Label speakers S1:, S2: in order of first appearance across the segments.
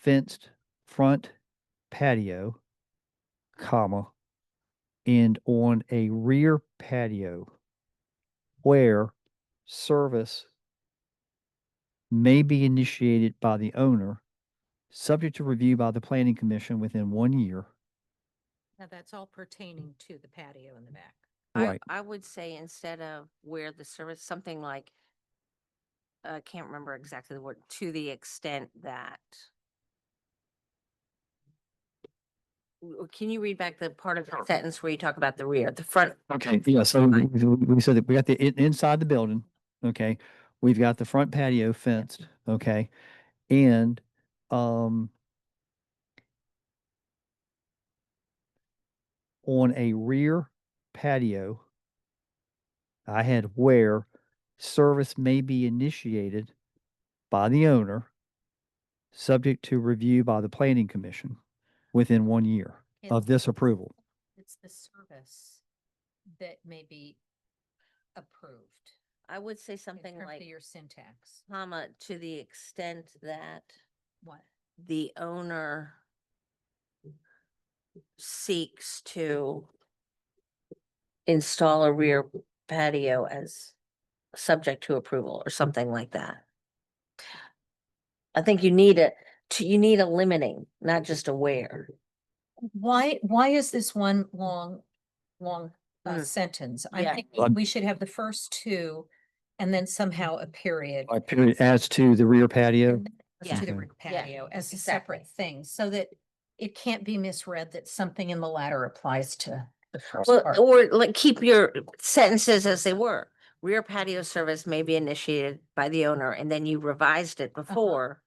S1: fenced front patio, comma, and on a rear patio where service may be initiated by the owner, subject to review by the planning commission within one year.
S2: Now, that's all pertaining to the patio in the back.
S3: I, I would say instead of where the service, something like, I can't remember exactly the word, to the extent that. W- Can you read back the part of the sentence where you talk about the rear, the front?
S1: Okay, yeah, so we,
S3: Fine.
S1: we we said that we got the, in- inside the building, okay? We've got the front patio fenced, okay? And, um, on a rear patio, I had where service may be initiated by the owner, subject to review by the planning commission within one year of
S2: It's-
S1: this approval.
S2: It's the service that may be approved.
S3: I would say
S2: in
S3: something
S2: terms of
S3: like,
S2: Your syntax,
S3: comma, to the extent that
S2: what?
S3: the owner seeks to install a rear patio as subject to approval or something like that. I think you need a, to- you need a limiting, not just a where.
S2: Why, why is this one long, long uh,
S3: Mm.
S2: sentence?
S3: Yeah.
S2: I'm thinking
S1: Um,
S2: we should have the first two and then somehow a period.
S1: Like, period, as to the rear patio.
S2: and then as To the
S1: Yeah.
S2: rear
S3: Yeah,
S2: patio as a
S3: exactly.
S2: separate thing, so that it can't be misread that something in the latter applies to the first
S3: Well,
S2: part.
S3: or like keep your sentences as they were. Rear patio service may be initiated by the owner and then you revised it before.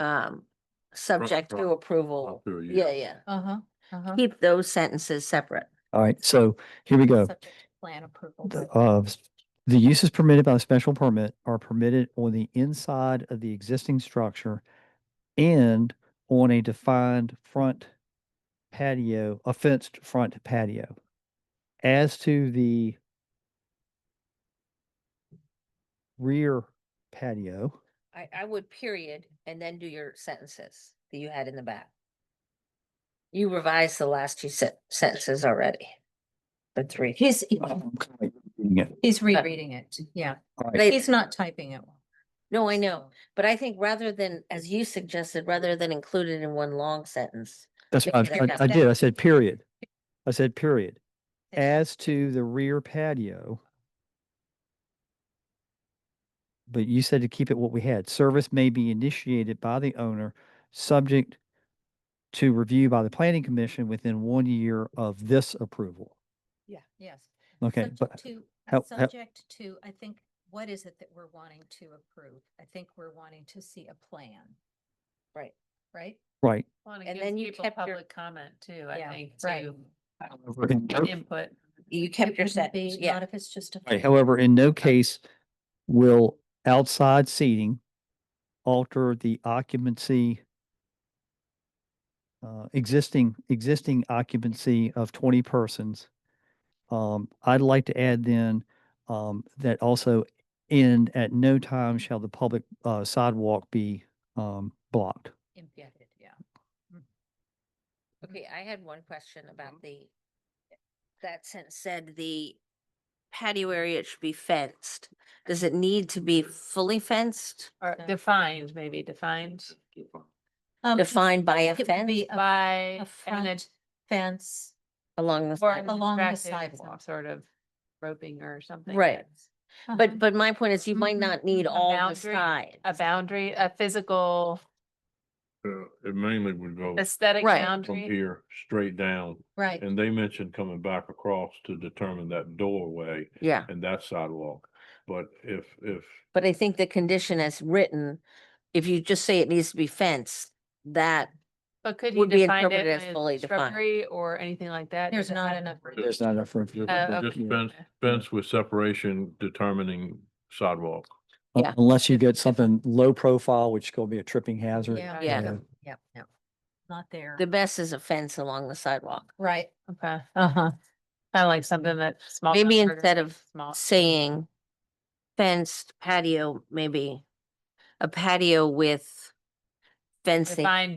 S3: Um, subject
S4: Uh-huh. right.
S3: to approval.
S4: Up to a year.
S3: Yeah, yeah.
S2: Uh-huh, uh-huh.
S3: Keep those sentences separate.
S1: All right, so here we go.
S2: Subject to Plan approval.
S1: The, uh, s- the uses permitted by the special permit are permitted on the inside of the existing structure and on a defined front patio, a fenced front patio. As to the rear patio,
S3: I, I would period and then do your sentences that you had in the back. You revised the last two sen- sentences already. The three.
S2: He's,
S1: uh, Yeah,
S2: he's rereading it, yeah.
S1: all right,
S3: They-
S2: He's not typing it.
S3: No, I know,
S2: so-
S3: but I think rather than, as you suggested, rather than include it in one long sentence.
S1: that's what I, I- I did. I said period. I said period. As to the rear patio. But you said to keep it what we had. Service may be initiated by the owner, subject to review by the planning commission within one year of this approval.
S2: Yeah. Yes.
S1: Okay,
S2: Subject
S1: but
S2: to-
S1: how- how-
S2: Subject to, I think, what is it that we're wanting to approve? I think we're wanting to see a plan.
S3: Right.
S2: Right?
S1: right.
S5: Well, it
S3: And
S5: gives
S3: then you
S5: people
S3: kept your-
S5: public comment too, I
S2: Yeah,
S5: think,
S2: right.
S5: to
S1: However, in no-
S5: input.
S3: You kept
S2: It
S3: your
S2: wouldn't be-
S3: sentence, yeah.
S2: Not if it's just a.
S1: right,
S2: plan.
S1: However, in no case will outside seating alter the occupancy uh, existing, existing occupancy of twenty persons. Um, I'd like to add then, um, that also end at no time shall the public, uh, sidewalk be, um, blocked.
S2: Impeded, yeah.
S3: Okay, I had one question about
S2: Mm-hmm.
S3: the, that sentence said the patio area should be fenced. Does it need to be fully fenced?
S5: Or
S2: So-
S5: defined, maybe defined
S2: Um,
S3: Defined by a
S2: It would
S3: fence
S2: be a
S5: by
S2: a
S5: an
S2: front fence.
S3: along the.
S5: or an
S3: side?
S2: along the
S5: attractive, some
S2: sidewalk.
S5: Sort of roping or something.
S3: Right.
S5: that's
S2: Uh-huh.
S3: But, but my point is you might
S2: Mhm.
S3: not need
S5: Mm-hmm, A
S3: all the
S5: boundary,
S3: side.
S5: A boundary, a physical
S4: Uh, It mainly would go
S5: aesthetic
S3: Right.
S4: from
S5: boundary.
S4: here straight down,
S2: Right.
S4: and they mentioned coming back across to determine that doorway
S3: Yeah,
S4: and that sidewalk. But if, if,
S3: but I think the condition as written, if you just say it needs to be fenced, that
S5: But could you
S3: would be
S5: define
S3: interpreted as
S5: it
S3: fully
S5: with
S3: defined.
S5: shrubbery or anything like that?
S2: There's
S5: Does it
S2: not
S5: have-
S2: enough room.
S1: There's not enough room.
S4: just
S5: Oh,
S4: just
S5: okay.
S4: fence, fence with separation determining sidewalk.
S1: un-
S3: Yeah.
S1: Unless you get something low profile, which is gonna be a tripping hazard.
S2: Yeah.
S3: Yeah.
S1: uh,
S2: Yep, no, not
S5: Uh-huh.
S2: there.
S3: the best is a fence along the sidewalk.
S2: Right.
S5: Okay, uh-huh. Kind of like something that small.
S3: Maybe
S5: town
S3: instead
S5: garden,
S3: of
S5: Small.
S3: saying fenced patio, maybe a patio with fencing.
S5: Defined